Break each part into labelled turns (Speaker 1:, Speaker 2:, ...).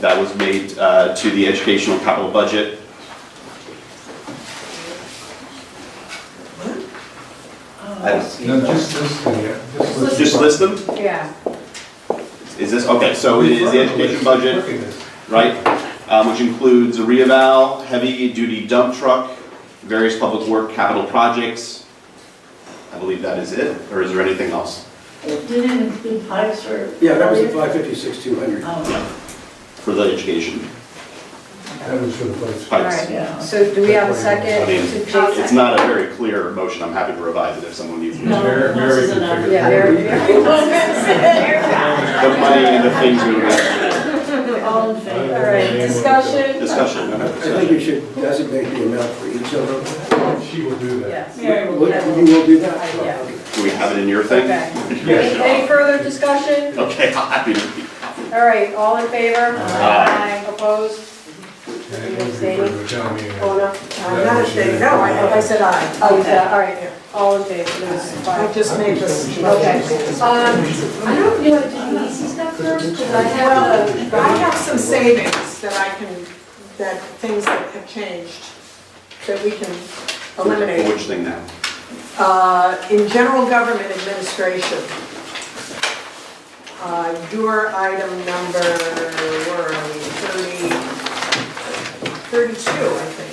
Speaker 1: that was made uh, to the educational capital budget. I don't-
Speaker 2: No, just this thing here. Just listen.
Speaker 1: Just list them?
Speaker 3: Yeah.
Speaker 1: Is this, okay, so it is the education budget,
Speaker 2: Look at this.
Speaker 1: right? Um, Which includes a reeval, heavy-duty dump truck, various public work capital projects. I believe that is it, or is there anything else?
Speaker 4: It didn't include pipes or.
Speaker 5: Yeah, that was the 556, 200.
Speaker 4: Oh,
Speaker 1: For the education,
Speaker 2: That was for the place.
Speaker 3: All
Speaker 1: pipes.
Speaker 3: right, so do we have a
Speaker 1: I
Speaker 3: second
Speaker 1: mean,
Speaker 3: to
Speaker 1: It's
Speaker 3: Jason?
Speaker 1: not a very clear motion, I'm happy to revise it if someone needs it.
Speaker 4: No,
Speaker 2: Mary-
Speaker 4: this
Speaker 2: Mary
Speaker 4: is
Speaker 2: can
Speaker 4: enough.
Speaker 2: figure it
Speaker 3: Yeah,
Speaker 2: out.
Speaker 3: there.
Speaker 1: The money and the things we would have
Speaker 4: all in
Speaker 2: I don't know
Speaker 4: favor?
Speaker 3: All right,
Speaker 2: the name of it.
Speaker 3: discussion?
Speaker 1: discussion.
Speaker 5: I think you should designate the amount for each of them.
Speaker 2: She will do that.
Speaker 3: Yes.
Speaker 4: Mary will
Speaker 5: Would-
Speaker 4: have
Speaker 5: You will do that?
Speaker 3: Yeah.
Speaker 5: Okay.
Speaker 1: Do we have it in your thing?
Speaker 3: Okay.
Speaker 2: Yes.
Speaker 3: Any any further discussion?
Speaker 1: Okay, I'm happy to.
Speaker 3: All right, all in favor?
Speaker 1: Aye.
Speaker 3: Opposed?
Speaker 2: And it won't be for the town meeting.
Speaker 3: Oh, no.
Speaker 2: I'm not saying
Speaker 6: No, I, I said aye.
Speaker 3: Oh, you said- all right, yeah. all in favor, there's
Speaker 6: I
Speaker 3: five.
Speaker 6: just made this.
Speaker 3: Okay. Um,
Speaker 7: I don't know, did you easy stuff first? Because I have a.
Speaker 6: Well, I have some savings that I can, that things that have changed, that we can eliminate.
Speaker 1: Which thing now?
Speaker 6: Uh, In general government administration, uh, your item number, where are we, 30, 32, I think.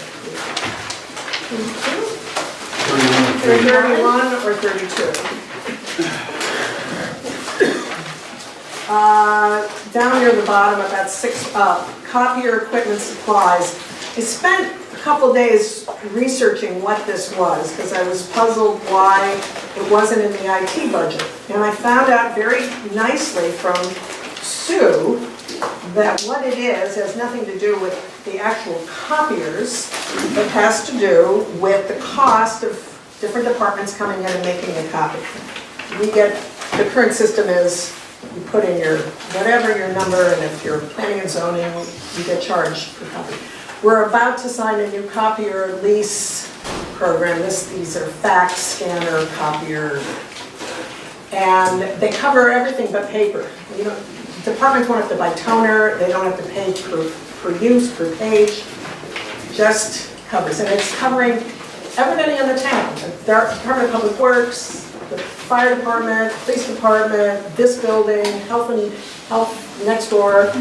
Speaker 6: 31 or 32? Uh, Down near the bottom, about six up, copier equipment supplies. I spent a couple days researching what this was, because I was puzzled why it wasn't in the IT budget. And I found out very nicely from Sue that what it is has nothing to do with the actual copiers. It has to do with the cost of different departments coming in and making a copy. We get, the current system is, you put in your, whatever your number, and if you're planning and zoning, you get charged per copy. We're about to sign a new copier lease program, this, these are fax scanner copier. And they cover everything but paper. You know, departments won't have to buy toner, they don't have to pay per, per use, per page just covers, and it's covering everybody in the town. The Department of Public Works, the fire department, police department, this building, health and, health next door,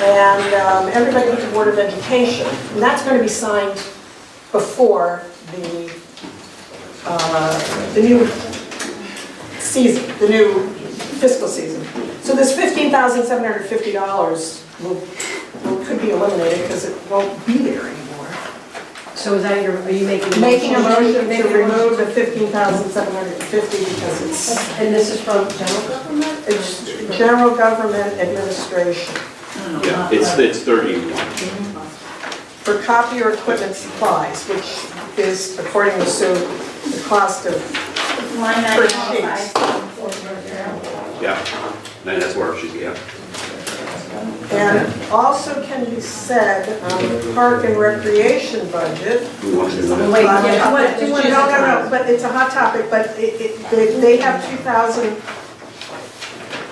Speaker 6: and um, everybody with the Board of Education. And that's going to be signed before the, uh, the new season, the new fiscal season. So this $15,750 will well, could be eliminated because it won't be there anymore.
Speaker 3: So is that your, are you making?
Speaker 6: Making a motion
Speaker 3: Making
Speaker 6: to
Speaker 3: a motion.
Speaker 6: remove the fifteen thousand seven hundred and fifty because it's,
Speaker 3: And this is from general government?
Speaker 6: it's general government administration
Speaker 1: Yeah, it's, it's 31.
Speaker 6: for copier equipment supplies, which is according to Sue, the cost of,
Speaker 4: Line
Speaker 6: For
Speaker 4: item
Speaker 6: sheets.
Speaker 4: 5.4.
Speaker 1: Yeah, and that's where she's, yeah.
Speaker 6: and also can be said on the park and recreation budget.
Speaker 1: We want to do that.
Speaker 3: Wait,
Speaker 6: Uh,
Speaker 3: yeah,
Speaker 6: what-
Speaker 3: what-
Speaker 6: No, no, no, but it's a hot topic, but it, it, they- they have two thousand,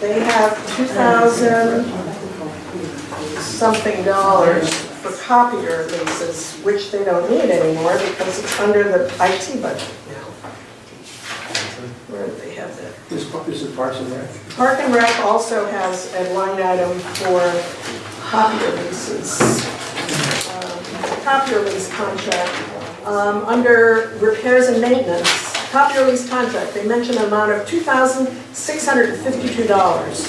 Speaker 6: they have two thousand something dollars for copier leases, which they don't need anymore because it's under the IT budget now. Where do they have that?
Speaker 5: Is is it Parks and Rec?
Speaker 6: Park and Rec also has a line item for copier leases, um, copier lease contract. Um, Under repairs and maintenance, copier lease contract, they mention an amount of $2,652.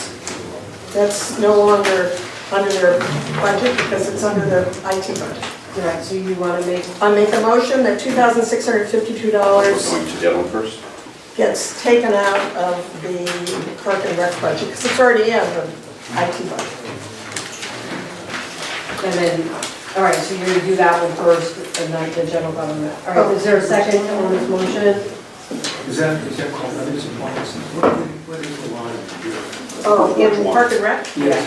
Speaker 6: That's no longer under their budget because it's under the IT budget.
Speaker 3: Right, so you want to make,
Speaker 6: I make a motion that $2,652
Speaker 1: Going to the other one first?
Speaker 6: gets taken out of the park and rec budget, because it's already in the IT budget.
Speaker 3: and then, all right, so you're going to do that one first, and then the general government. All right, is there a second on this motion?
Speaker 5: Is that, is that called, that is a line? What what is the line?
Speaker 6: Oh, in park and rec?
Speaker 5: Yes.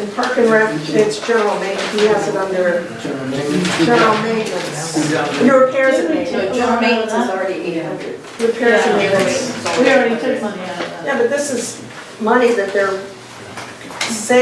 Speaker 6: In park and rec, it's general maintenance, he has it under
Speaker 5: General maintenance?
Speaker 6: general maintenance.
Speaker 5: General-
Speaker 6: Your repairs and
Speaker 4: Didn't
Speaker 6: maintenance,
Speaker 4: we do- General maintenance is
Speaker 3: already eight hundred.
Speaker 6: repairs and maintenance.
Speaker 4: We already took money out of that.
Speaker 6: Yeah, but this is money that they're saving